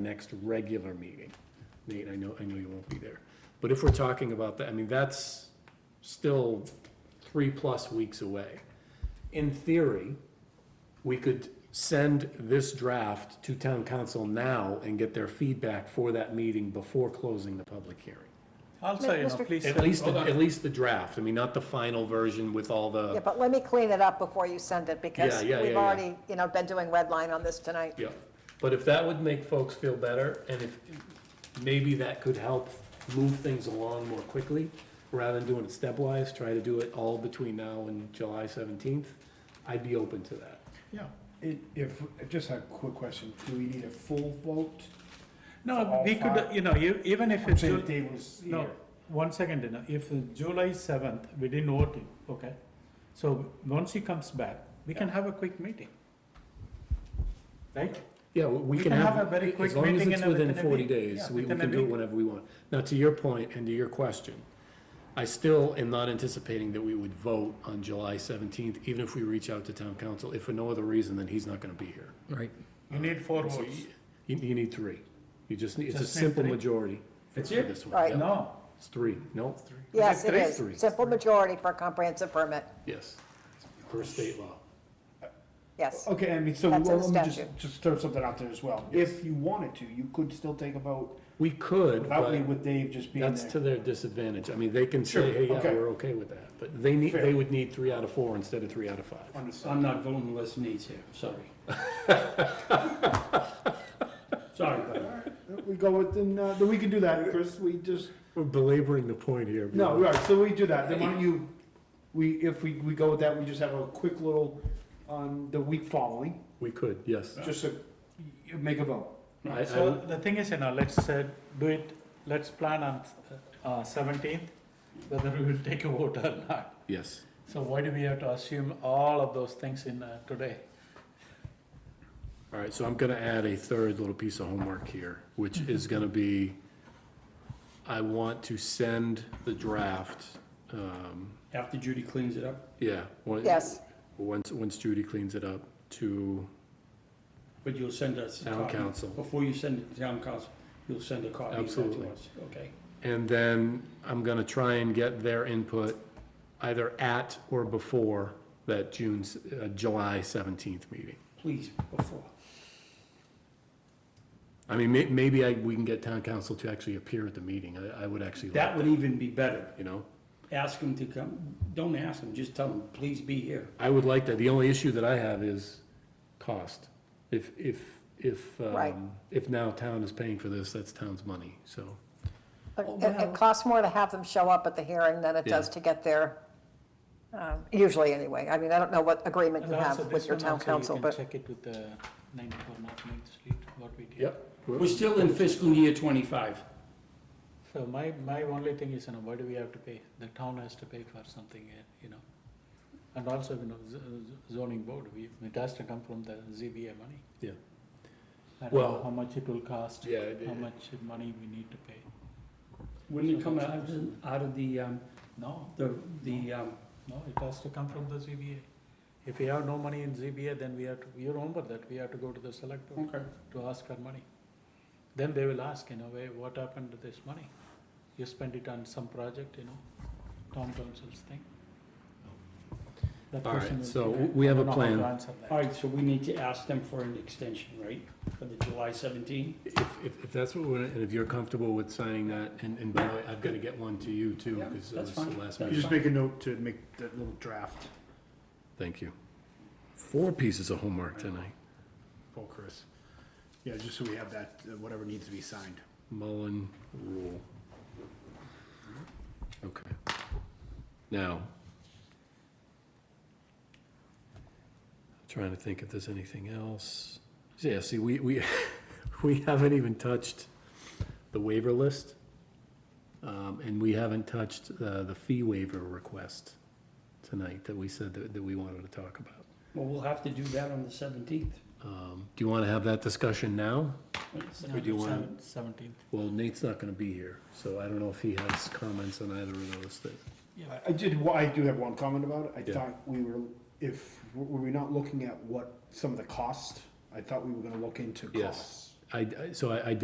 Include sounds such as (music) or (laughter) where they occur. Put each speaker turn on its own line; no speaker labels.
next regular meeting. Nate, I know, I know you won't be there. But if we're talking about that, I mean, that's still three-plus weeks away. In theory, we could send this draft to town council now and get their feedback for that meeting before closing the public hearing.
I'll say, you know,
Mr.
please.
At
send-
least,
hold on.
at least the draft, I mean, not the final version with all
Yeah,
the,
but let me clean it up before you send it, because
yeah, yeah,
we've
yeah.
already, you know, been doing red line on this tonight.
yeah. But if that would make folks feel better, and if, maybe that could help move things along more quickly, rather than doing it stepwise, try to do it all between now and July seventeenth, I'd be open to that.
Yeah, it, if, just a quick question, do we need a full vote?
No,
all
we could,
five.
you know, you, even if
I'm
it's,
saying if
Ju-
Dave was
no,
here.
one second, you know, if it's July seventh, we didn't vote him, okay? So once he comes back, we can have a quick meeting. Right?
Yeah, we- we can have,
a very quick
as long as
meeting
it's
and a-
within
within a
forty
week.
days,
Yeah,
we we
within a
can do it
week.
whenever we want. Now, to your point and to your question, I still am not anticipating that we would vote on July seventeenth, even if we reach out to town council, if for no other reason than he's not gonna be here.
Right.
You need four
So
votes.
You, you need three. You just need, it's a
Just need
simple
three.
majority for
That's it?
for this one.
Right.
Yeah,
No,
It's three, no,
Yes, it
three?
is.
Three.
Simple majority for a comprehensive permit,
yes, per state law.
yes.
Oh,
Okay, I mean, so
That's in
well,
the
let me just,
statute.
just throw something out there as well. If you wanted to, you could still take a vote
We could,
without me
but
with Dave just being
that's to
there.
their disadvantage. I mean, they can say,
Sure,
hey, yeah,
okay.
we're okay with that, but they need,
Fair.
they would need three out of four instead of three out of five.
Understood.
I'm not voting unless needs here, sorry.
(laughs)
Sorry, buddy.
We go with, then, uh, then we can do that, Chris, we just,
We're belaboring the point here.
no, right, so we do that, then why don't you, we, if we, we go with that, we just have a quick little, on the week following,
We could, yes.
just so, you make a vote.
I- I-
so the thing is, you know, let's uh, do it, let's plan on uh, seventeenth, whether we will take a vote or not.
Yes.
So why do we have to assume all of those things in uh, today?
All right, so I'm gonna add a third little piece of homework here, which is gonna be, I want to send the draft, um,
After Judy cleans it up,
yeah. when-
Yes.
Once, once Judy cleans it up to
but you'll send us. a
town
copy.
council.
Before you send it to town council, you'll send a copy of that
Absolutely.
to us, okay?
And then I'm gonna try and get their input either at or before that June's, uh, July seventeenth meeting.
Please, before.
I mean, may, maybe I, we can get town council to actually appear at the meeting. I, I would actually like,
That would even be better.
you know?
Ask them to come, don't ask them, just tell them, please be here.
I would like that. The only issue that I have is cost. If, if, if,
Right.
um, if now town is paying for this, that's town's money, so.
It- It it costs more to have them show up at the hearing than it does
Oh, Yeah.
to get there, um, usually anyway. I mean, I don't know what agreement you
And also
have with
this
your
one
town
also
council,
You
but.
can check it with the 94 North Main Street, what we did.
We're still in fiscal year twenty-five.
So my, my only thing is, you know, why do we have to pay? The town has to pay for something, uh, you know. And also, you know, z- z- zoning board, we, it has to come from the ZBA money.
Yeah.
I don't know
Well-
how much it will cost,
Yeah, it-
how much money we need to pay.
Wouldn't it come out of, the- out of the, um,
No,
the, the, um,
no, it has to come from the ZBA. If we have no money in ZBA, then we have to, you remember that, we have to go to the select board.
okay.
to ask for money. Then they will ask, you know, where, what happened to this money? You spent it on some project, you know, town council's thing. That
All right,
question will
so
be there.
we have
I
a
don't know how to
plan.
answer that.
All right, so we need to ask them for an extension, right, for the July seventeen?
If, if, if that's what we're, and if you're comfortable with signing that, and, and by the way, I've gotta get one to you too,
Yeah,
because that
that's
was the
fine.
last
That's
You
meeting.
just make a note to make that little draft.
Thank you. Four pieces of homework tonight.
Paul Chris. Yeah, just so we have that, uh, whatever needs to be signed.
Mullen rule. Okay. Now. Trying to think if there's anything else. Yeah, see, we, we, (laughs) we haven't even touched the waiver list. Um, and we haven't touched, uh, the fee waiver request tonight that we said that, that we wanted to talk about.
Well, we'll have to do that on the seventeenth.
Um, do you want to have that discussion now? Or do you wanna-
Seventeenth.
Well, Nate's not gonna be here, so I don't know if he has comments on either of those that.
I- I did, wa- I do have one comment about it. I
Yeah.
thought we were, if, were we not looking at what, some of the cost? I thought we were gonna look into
Yes.
costs.
I, I- so I, I